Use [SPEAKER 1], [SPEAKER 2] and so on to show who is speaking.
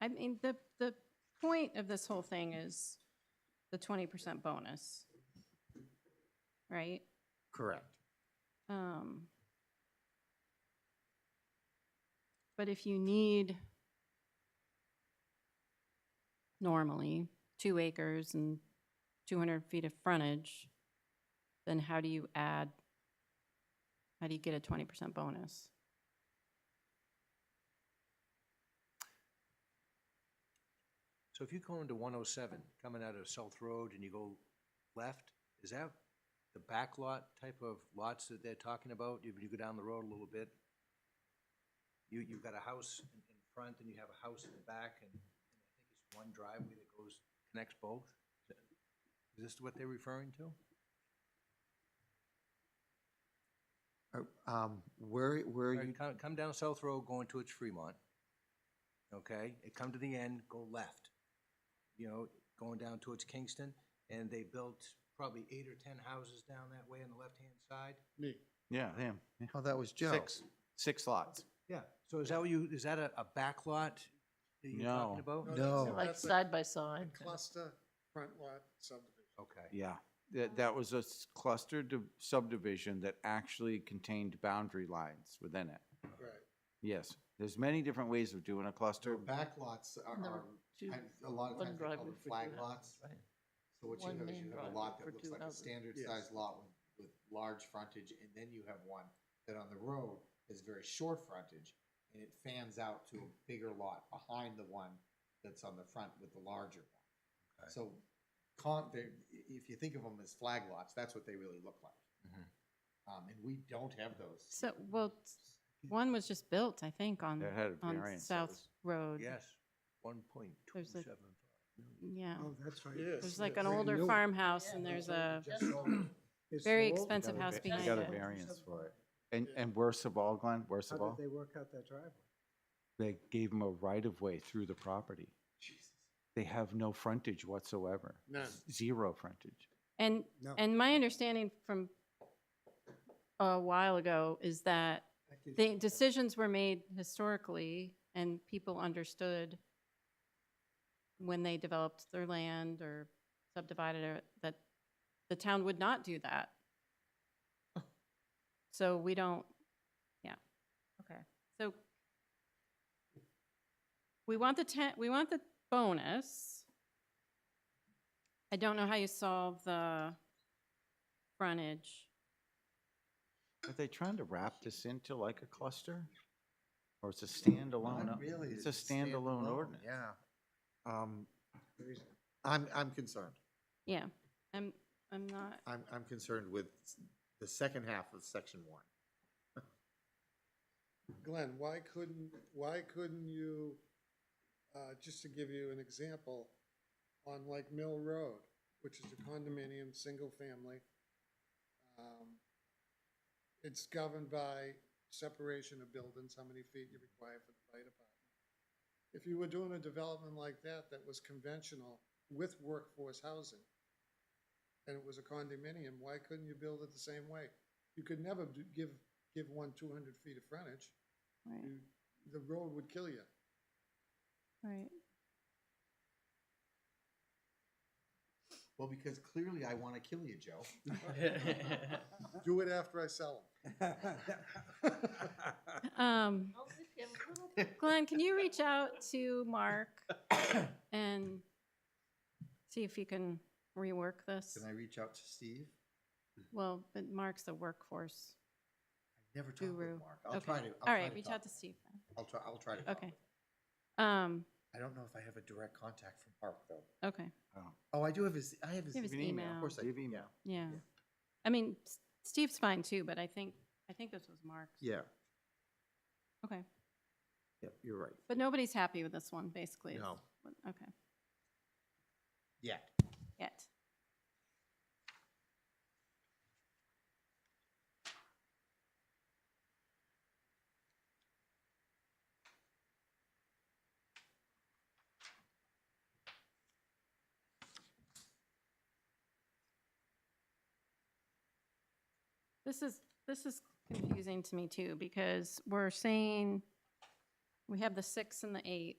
[SPEAKER 1] I mean, the, the point of this whole thing is the twenty percent bonus, right?
[SPEAKER 2] Correct.
[SPEAKER 1] Um, But if you need normally two acres and two hundred feet of frontage, then how do you add, how do you get a twenty percent bonus?
[SPEAKER 2] So if you go into one oh seven, coming out of South Road and you go left, is that the back lot type of lots that they're talking about? If you go down the road a little bit, you, you've got a house in, in front and you have a house in the back and, and I think it's one driveway that goes, connects both? Is this what they're referring to?
[SPEAKER 3] Uh, Um, where, where
[SPEAKER 2] All
[SPEAKER 3] you,
[SPEAKER 2] right, come, come down South Road going towards Fremont, okay? And come to the end, go left, you know, going down towards Kingston, and they built probably eight or ten houses down that way on the left-hand side.
[SPEAKER 4] Me.
[SPEAKER 5] Yeah, him. yeah.
[SPEAKER 3] oh, that was Joe.
[SPEAKER 5] Six, six lots.
[SPEAKER 2] Yeah, so is that what you, is that a, a back lot that you're talking
[SPEAKER 5] No.
[SPEAKER 2] about?
[SPEAKER 3] No.
[SPEAKER 4] that's-
[SPEAKER 3] So
[SPEAKER 6] Like
[SPEAKER 4] that's a
[SPEAKER 6] side by side.
[SPEAKER 4] Cluster front lot subdivision.
[SPEAKER 2] Okay,
[SPEAKER 5] Yeah, that, that was a s- clustered div- subdivision that actually contained boundary lines within it.
[SPEAKER 4] Right.
[SPEAKER 5] Yes, there's many different ways of doing a
[SPEAKER 7] So
[SPEAKER 5] cluster.
[SPEAKER 7] back lots are,
[SPEAKER 6] There were
[SPEAKER 7] are,
[SPEAKER 6] two-
[SPEAKER 7] kind- a lot of
[SPEAKER 6] one
[SPEAKER 7] times they call
[SPEAKER 6] driveway
[SPEAKER 7] them
[SPEAKER 6] for two
[SPEAKER 7] flag
[SPEAKER 6] houses,
[SPEAKER 7] lots.
[SPEAKER 6] right?
[SPEAKER 7] So what you
[SPEAKER 6] One
[SPEAKER 7] have is
[SPEAKER 6] main
[SPEAKER 7] you have a
[SPEAKER 6] driveway
[SPEAKER 7] lot
[SPEAKER 6] for
[SPEAKER 7] that looks
[SPEAKER 6] two
[SPEAKER 7] like a
[SPEAKER 6] houses.
[SPEAKER 7] standard
[SPEAKER 4] Yes.
[SPEAKER 7] sized lot with, with large frontage, and then you have one that on the road is very short frontage, and it fans out to a bigger lot behind the one that's on the front with the larger
[SPEAKER 2] Okay.
[SPEAKER 7] one. So, con, they, i- if you think of them as flag lots, that's what they really look like.
[SPEAKER 2] Mhm.
[SPEAKER 5] Mm-hmm.
[SPEAKER 7] Um, and we don't have those.
[SPEAKER 1] So, well, one was just built, I think, on,
[SPEAKER 5] That had a
[SPEAKER 1] on
[SPEAKER 5] variance, that
[SPEAKER 1] South
[SPEAKER 5] was-
[SPEAKER 1] Road.
[SPEAKER 2] yes, one point two
[SPEAKER 1] There's a-
[SPEAKER 2] seven five.
[SPEAKER 1] Yeah,
[SPEAKER 8] Oh, that's right.
[SPEAKER 4] Yes.
[SPEAKER 1] there's
[SPEAKER 4] It's
[SPEAKER 1] like
[SPEAKER 4] a
[SPEAKER 1] an
[SPEAKER 4] brand
[SPEAKER 1] older
[SPEAKER 4] new one.
[SPEAKER 1] farmhouse and there's a very expensive
[SPEAKER 5] They
[SPEAKER 1] house
[SPEAKER 5] got a-
[SPEAKER 1] behind
[SPEAKER 5] They got a
[SPEAKER 1] it.
[SPEAKER 5] variance for it. And,
[SPEAKER 4] Yeah.
[SPEAKER 5] and worst of all, Glenn, worst
[SPEAKER 8] How
[SPEAKER 5] of all,
[SPEAKER 8] did they work out that driveway?
[SPEAKER 5] they gave him a right of way through the property. They have no frontage whatsoever.
[SPEAKER 4] None.
[SPEAKER 5] Zero frontage.
[SPEAKER 1] And,
[SPEAKER 8] No.
[SPEAKER 1] and my understanding from a while ago is that
[SPEAKER 8] That gives
[SPEAKER 1] the
[SPEAKER 8] you-
[SPEAKER 1] decisions were made historically and people understood when they developed their land or subdivided it, that the town would not do that. So we don't, yeah.
[SPEAKER 6] Okay.
[SPEAKER 1] So we want the ten, we want the bonus. I don't know how you solve the frontage.
[SPEAKER 5] Are they trying to wrap this into like a cluster? Or it's a standalone? o-
[SPEAKER 7] Really,
[SPEAKER 5] It's a standalone ordinance.
[SPEAKER 7] Yeah.
[SPEAKER 3] Um,
[SPEAKER 8] there is-
[SPEAKER 7] I'm, I'm concerned.
[SPEAKER 1] Yeah, I'm, I'm not,
[SPEAKER 7] I'm, I'm concerned with s- the second half of section one.
[SPEAKER 4] Glenn, why couldn't, why couldn't you, uh, just to give you an example, on like Mill Road, which is a condominium, single family, um, it's governed by separation of buildings, how many feet you require for the fire department. If you were doing a development like that, that was conventional with workforce housing, and it was a condominium, why couldn't you build it the same way? You could never do- give, give one two hundred feet of frontage
[SPEAKER 1] right,
[SPEAKER 4] you- the road would kill you.
[SPEAKER 1] right.
[SPEAKER 7] Well, because clearly I want to kill you, Joe.
[SPEAKER 4] Do it after I sell
[SPEAKER 1] Um, Glenn, can you reach out to Mark and see if you can rework this?
[SPEAKER 7] Can I reach out to Steve?
[SPEAKER 1] Well, but Mark's the workforce
[SPEAKER 7] Never talk
[SPEAKER 1] guru.
[SPEAKER 7] with Mark. I'll
[SPEAKER 1] Okay.
[SPEAKER 7] try to. I'll
[SPEAKER 1] All
[SPEAKER 7] try
[SPEAKER 1] right, reach
[SPEAKER 7] talk.
[SPEAKER 1] out to Steve. then.
[SPEAKER 7] I'll try. I'll try to. talk
[SPEAKER 1] Okay.
[SPEAKER 7] with him.
[SPEAKER 1] Um,
[SPEAKER 7] I don't know if I have a direct contact from Mark though.
[SPEAKER 1] okay,
[SPEAKER 7] Oh, I do have his. I have his.
[SPEAKER 1] Give his
[SPEAKER 7] Of
[SPEAKER 1] email.
[SPEAKER 7] course I
[SPEAKER 5] Give
[SPEAKER 7] do.
[SPEAKER 5] email.
[SPEAKER 1] yeah. I mean, S- Steve's fine too, but I think, I think this was Mark's.
[SPEAKER 7] Yeah.
[SPEAKER 1] Okay,
[SPEAKER 7] Yeah. You're right.
[SPEAKER 1] but nobody's happy with this one, basically. is
[SPEAKER 7] No.
[SPEAKER 1] what- Okay,
[SPEAKER 7] Yeah.
[SPEAKER 1] yet. This is, this is confusing to me too, because we're saying we have the six and the eight.